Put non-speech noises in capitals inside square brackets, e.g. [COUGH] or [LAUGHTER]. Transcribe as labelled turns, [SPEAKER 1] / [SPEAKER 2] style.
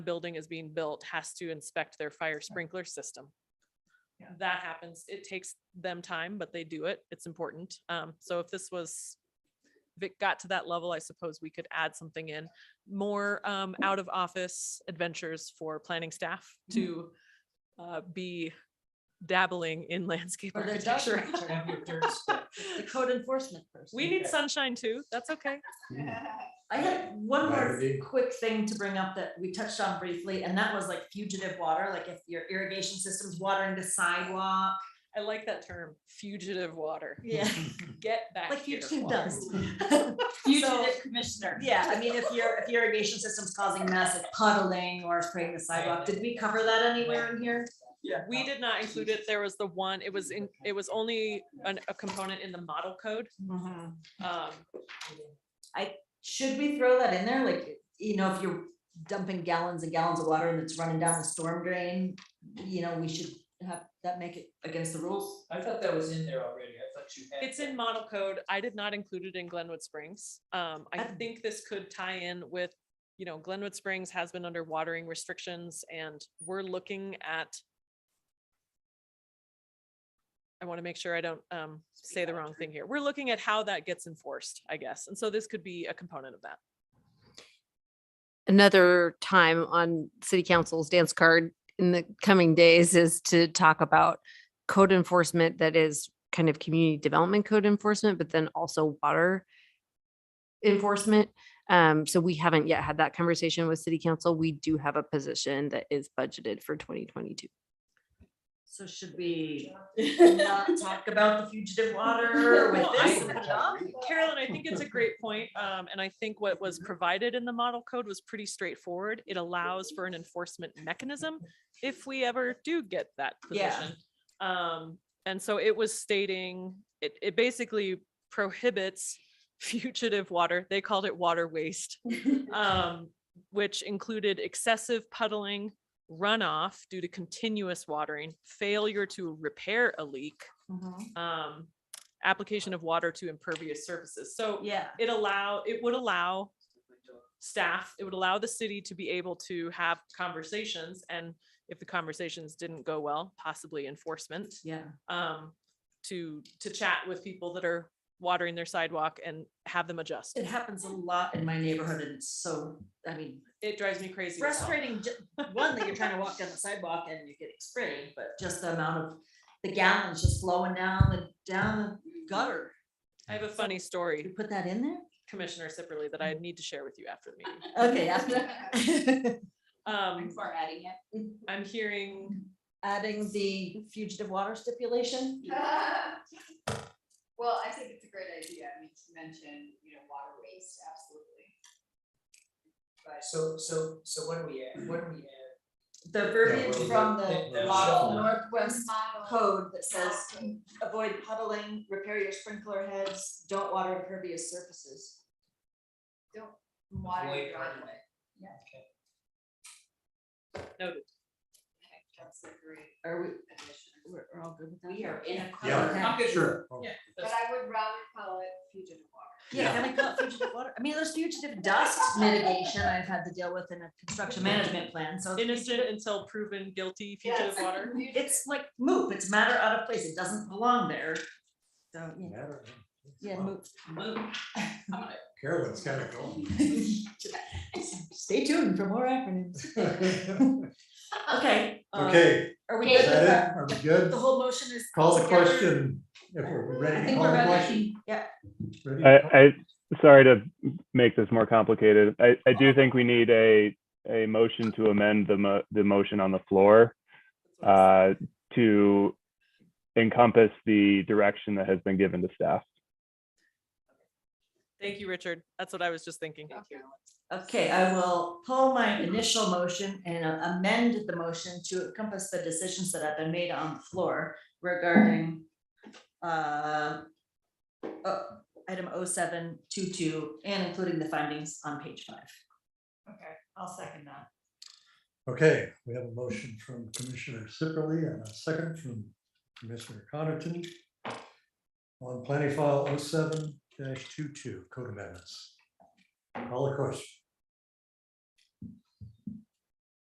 [SPEAKER 1] building is being built has to inspect their fire sprinkler system.
[SPEAKER 2] Yeah.
[SPEAKER 1] That happens. It takes them time, but they do it. It's important. Um, so if this was, if it got to that level, I suppose we could add something in. More, um, out of office adventures for planning staff
[SPEAKER 2] Mhm.
[SPEAKER 1] to, uh, be dabbling in landscape
[SPEAKER 2] Or the dust
[SPEAKER 1] architecture.
[SPEAKER 2] control.
[SPEAKER 3] Have your third step.
[SPEAKER 2] [LAUGHS] The code enforcement person.
[SPEAKER 1] We need
[SPEAKER 3] Okay.
[SPEAKER 1] sunshine too. That's okay.
[SPEAKER 2] I had one more
[SPEAKER 3] Clarity.
[SPEAKER 2] quick thing to bring up that we touched on briefly, and that was like fugitive water, like if your irrigation system's watering the sidewalk.
[SPEAKER 1] I like that term, fugitive water.
[SPEAKER 2] [LAUGHS] Yeah.
[SPEAKER 1] Get back
[SPEAKER 2] [LAUGHS] Like
[SPEAKER 1] here.
[SPEAKER 2] fugitive
[SPEAKER 1] water.
[SPEAKER 2] dust. [LAUGHS]
[SPEAKER 4] Fugitive commissioner.
[SPEAKER 2] Yeah, I mean, if your, if your irrigation system's causing massive puddling or spraying the sidewalk, did we cover that anywhere in here?
[SPEAKER 3] Yeah.
[SPEAKER 1] We did not include it. There was the one, it was in, it was only an, a component in the model code.
[SPEAKER 2] Mm-hmm.
[SPEAKER 1] Um,
[SPEAKER 2] Should we throw that in there? Like, you know, if you're dumping gallons and gallons of water and it's running down the storm drain, you know, we should have, that make it against the rules?
[SPEAKER 3] I thought that was in there already. I thought you had.
[SPEAKER 1] It's in model code. I did not include it in Glenwood Springs. Um, I
[SPEAKER 2] Okay.
[SPEAKER 1] think this could tie in with, you know, Glenwood Springs has been under watering restrictions and we're looking at I want to make sure I don't um, say the wrong thing here. We're looking at how that gets enforced, I guess. And so this could be a component of that.
[SPEAKER 5] another time on city council's dance card in the coming days is to talk about code enforcement that is kind of community development code enforcement, but then also water enforcement. Um, so we haven't yet had that conversation with city council. We do have a position that is budgeted for twenty twenty-two.
[SPEAKER 2] So should [LAUGHS] we not talk about the fugitive [LAUGHS] water with
[SPEAKER 1] No, I-
[SPEAKER 2] this? and put it off?
[SPEAKER 1] Carolyn, I think it's a great point, um, and I think what was provided in the model code was pretty straightforward. It allows for an enforcement mechanism if we ever do get that
[SPEAKER 2] Yeah.
[SPEAKER 1] position. Um, and so it was stating, it, it basically prohibits [LAUGHS] fugitive water, they called it water waste. Um, which included excessive puddling, runoff due to continuous watering, failure to repair a leak,
[SPEAKER 2] Mhm.
[SPEAKER 1] um, application of water to impervious surfaces. So
[SPEAKER 2] Yeah,
[SPEAKER 1] it allow, it would allow staff, it would allow the city to be able to have conversations and if the conversations didn't go well, possibly enforcement,
[SPEAKER 2] yeah.
[SPEAKER 1] um, to, to chat with people that are watering their sidewalk and have them adjust.
[SPEAKER 2] It happens a lot in my neighborhood and it's so, I mean,
[SPEAKER 1] It drives me crazy. as hell.
[SPEAKER 2] frustrating, ju- one, that you're trying to walk down the sidewalk and you're getting sprayed, but just the amount of the gallons just flowing down the, down the gutter.
[SPEAKER 1] I have a funny
[SPEAKER 2] Should we
[SPEAKER 1] story,
[SPEAKER 2] put that in there?
[SPEAKER 1] Commissioner Sipperly, that
[SPEAKER 2] Mm-hmm.
[SPEAKER 1] I need to share with you after the meeting.
[SPEAKER 2] [LAUGHS] Okay, after-
[SPEAKER 1] Um,
[SPEAKER 4] Before adding it.
[SPEAKER 1] I'm hearing,
[SPEAKER 2] adding the fugitive water stipulation?
[SPEAKER 4] [LAUGHS] Well, I think it's a great idea, I mean, to mention, you know, water waste, absolutely.
[SPEAKER 3] So, so, so what do we add? What do we add?
[SPEAKER 2] The verbiage
[SPEAKER 3] we're-
[SPEAKER 2] from the
[SPEAKER 3] that- that was
[SPEAKER 2] model
[SPEAKER 3] shuffled.
[SPEAKER 2] Northwest
[SPEAKER 4] Model.
[SPEAKER 2] code that says avoid puddling, repair your sprinkler heads, don't water impervious surfaces.
[SPEAKER 4] Water
[SPEAKER 3] Avoid
[SPEAKER 4] your driveway.
[SPEAKER 3] Okay.
[SPEAKER 1] Noted.
[SPEAKER 4] Okay, That's a great
[SPEAKER 2] Are we,
[SPEAKER 4] addition.
[SPEAKER 2] we're, we're all good with that?
[SPEAKER 4] We are in a.
[SPEAKER 2] Yeah.
[SPEAKER 4] code,
[SPEAKER 3] sure.
[SPEAKER 4] But I would rather call it fugitive water.
[SPEAKER 2] Yeah, can I call it fugitive water? I mean, there's fugitive dust mitigation I've had to deal with in a construction management plan, so.
[SPEAKER 1] innocent until proven guilty fugitive
[SPEAKER 4] Yes. [LAUGHS]
[SPEAKER 1] water.
[SPEAKER 2] It's like move, it's matter out of place, it doesn't belong there. So, yeah, yeah,
[SPEAKER 6] Wow,
[SPEAKER 2] move, move.
[SPEAKER 6] Carolyn's kind of
[SPEAKER 2] [LAUGHS]
[SPEAKER 6] going.
[SPEAKER 2] Stay tuned for more acronyms. Okay. uh,
[SPEAKER 6] [LAUGHS] Okay,
[SPEAKER 2] Are we
[SPEAKER 6] is
[SPEAKER 2] good with
[SPEAKER 6] that
[SPEAKER 2] that?
[SPEAKER 6] it? Are we
[SPEAKER 2] The
[SPEAKER 6] good?
[SPEAKER 2] whole motion is.
[SPEAKER 6] Call the
[SPEAKER 2] together?
[SPEAKER 6] question if we're
[SPEAKER 2] I
[SPEAKER 6] ready.
[SPEAKER 2] think
[SPEAKER 6] Call
[SPEAKER 2] we're
[SPEAKER 6] the
[SPEAKER 2] ready.
[SPEAKER 6] question. Ready?
[SPEAKER 7] I, I, sorry to make this more complicated. I, I do think we need a, a motion to amend the mo- the motion on the floor, uh, to encompass the direction that has been given to staff.
[SPEAKER 1] Thank you, Richard. That's what I was just thinking.
[SPEAKER 2] Okay, I will pull my initial motion and uh, amend the motion to encompass the decisions that have been made on the floor regarding uh, uh, item 0722 and including the findings on page five. Okay, I'll second that.
[SPEAKER 6] Okay, we have a motion from Commissioner Sipperly and a second from Commissioner Connerton oh on planning file 07-22 code amendments. Call the question.